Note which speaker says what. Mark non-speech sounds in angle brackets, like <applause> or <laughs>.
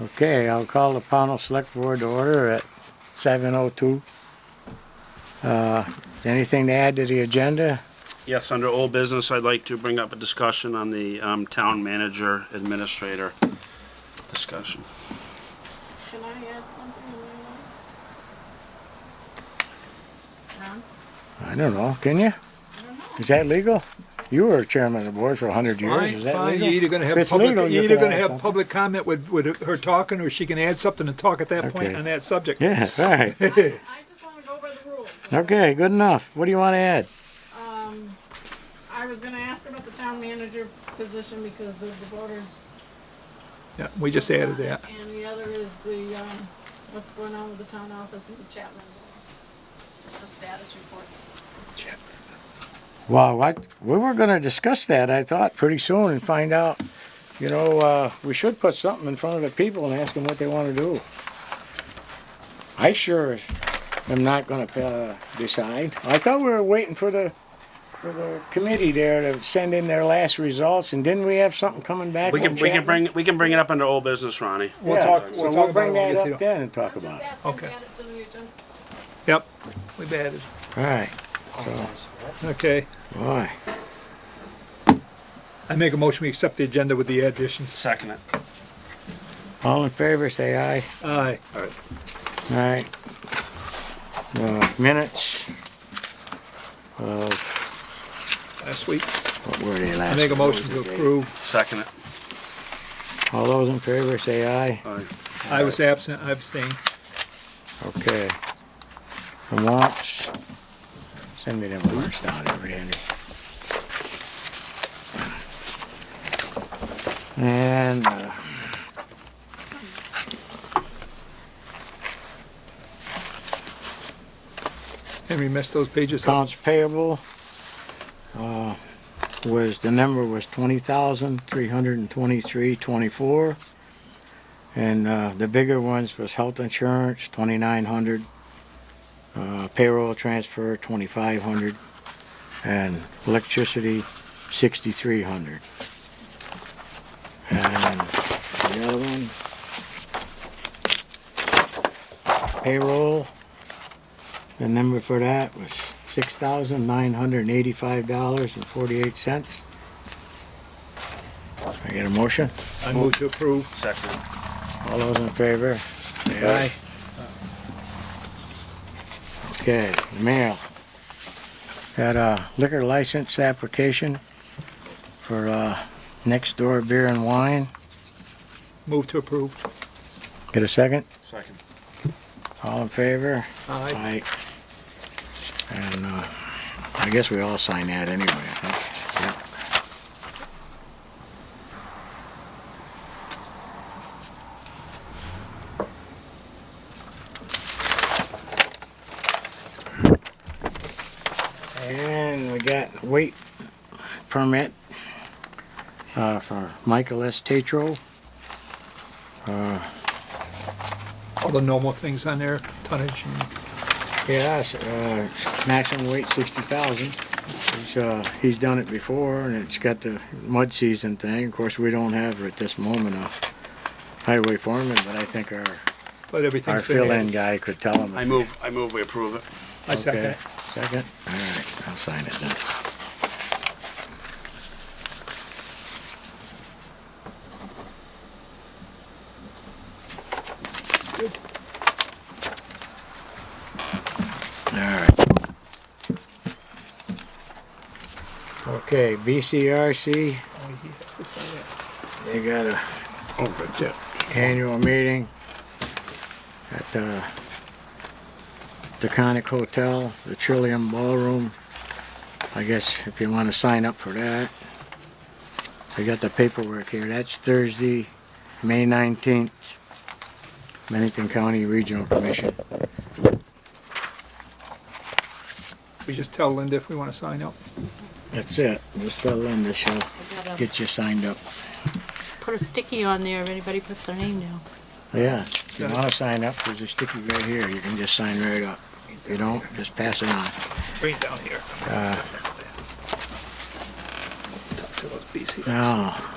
Speaker 1: Okay, I'll call the panel Select Board to order at seven oh two. Uh, anything to add to the agenda?
Speaker 2: Yes, under old business, I'd like to bring up a discussion on the um, town manager administrator discussion.
Speaker 3: Should I add something in there? No?
Speaker 1: I don't know, can you? Is that legal? You were chairman of the board for a hundred years,
Speaker 4: Fine,
Speaker 1: is that
Speaker 4: fine, you're
Speaker 1: legal?
Speaker 4: either gonna
Speaker 1: If
Speaker 4: have
Speaker 1: it's
Speaker 4: public,
Speaker 1: legal, you
Speaker 4: you're either
Speaker 1: can
Speaker 4: gonna
Speaker 1: add
Speaker 4: have
Speaker 1: something.
Speaker 4: public comment with, with her talking, or she can add something to talk at that
Speaker 1: Okay.
Speaker 4: point on that subject.
Speaker 1: Yeah, right.
Speaker 3: <laughs> I just wanna go by the rules.
Speaker 1: Okay, good enough. What do you want to add?
Speaker 3: Um, I was gonna ask about the town manager position because of the voters.
Speaker 4: Yeah, we just added that.
Speaker 3: And the other is the, um, what's going on with the town office in Chapman. Just a status report.
Speaker 1: Well, I, we were gonna discuss that, I thought, pretty soon and find out, you know, uh, we should put something in front of the people and ask them what they wanna do. I sure am not gonna, uh, decide. I thought we were waiting for the, for the committee there to send in their last results and didn't we have something coming back
Speaker 2: We
Speaker 1: from
Speaker 2: can, we can
Speaker 1: Chapman?
Speaker 2: bring, we can bring it up under old business, Ronnie.
Speaker 4: We'll
Speaker 1: Yeah,
Speaker 4: talk,
Speaker 1: so
Speaker 4: we'll talk about
Speaker 1: bring
Speaker 4: it when we
Speaker 1: that
Speaker 4: get to
Speaker 1: up
Speaker 4: them.
Speaker 1: then and talk
Speaker 3: I'm just
Speaker 1: about it.
Speaker 3: asking to
Speaker 4: Okay.
Speaker 3: add it to the agenda.
Speaker 4: Yep, we've added,
Speaker 1: Alright,
Speaker 4: okay.
Speaker 1: boy,
Speaker 4: I make a motion, we accept the agenda with the additions.
Speaker 2: Second it.
Speaker 1: all in favor, say aye.
Speaker 4: Aye.
Speaker 1: All right. Uh, minutes of,
Speaker 4: Last week,
Speaker 1: what were they last?
Speaker 4: I make a motion to
Speaker 1: what was the date?
Speaker 4: approve.
Speaker 2: Second it.
Speaker 1: All those in favor say aye.
Speaker 2: All right.
Speaker 4: I was absent, I abstained.
Speaker 1: Okay. The warrants. Send me them warrants down there, Randy. And, uh,
Speaker 4: Henry messed those pages up.
Speaker 1: accounts payable, uh, was, the number was twenty thousand, three hundred and twenty-three, twenty-four. And, uh, the bigger ones was health insurance, twenty-nine hundred, uh, payroll transfer, twenty-five hundred, and electricity, sixty-three hundred. And the other one, payroll, the number for that was six thousand nine hundred and eighty-five dollars and forty-eight cents. I get a motion?
Speaker 4: I move to approve.
Speaker 2: Second it.
Speaker 1: All those in favor? Say aye. Okay, mail. Got a liquor license application for, uh, next door beer and wine.
Speaker 4: Move to approve.
Speaker 1: Get a second?
Speaker 2: Second.
Speaker 1: All in favor? Aye.
Speaker 4: Aye.
Speaker 1: And, uh, I guess we all sign that anyway, I think. Yep. And we got weight permit, uh, for Michael S. Tetro.
Speaker 4: All the normal things on there, tonnage and
Speaker 1: Yes, uh, maximum weight sixty thousand. He's, uh, he's done it before and it's got the mud season thing. Of course, we don't have at this moment a highway foreman, but I think our,
Speaker 4: But
Speaker 1: our
Speaker 4: everything's been
Speaker 1: fill-in
Speaker 4: added.
Speaker 1: guy could tell him.
Speaker 2: I
Speaker 1: if-
Speaker 2: move, I move we approve it.
Speaker 4: I second
Speaker 1: Okay,
Speaker 4: it.
Speaker 1: Second? All right, I'll sign it then. All right. Okay, BCRC,
Speaker 4: Oh, he has to sign it.
Speaker 1: they got a
Speaker 2: Oh, good, yeah.
Speaker 1: annual meeting at uh, the Deconic Hotel, the Trillium Ballroom. I guess if you want to sign up for that. I got the paperwork here. That's Thursday, May 19th, Bennington County Regional Commission.
Speaker 4: We just tell Linda if we want to sign up.
Speaker 1: That's it. Just tell Linda she'll
Speaker 3: I gotta
Speaker 1: get you signed up.
Speaker 3: put a sticky on there if anybody puts their name down.
Speaker 1: Yeah, if you want to sign up, there's a sticky right here. You can just sign right up. If you don't, just pass it on.
Speaker 4: Bring it down here.
Speaker 1: Ah. Now,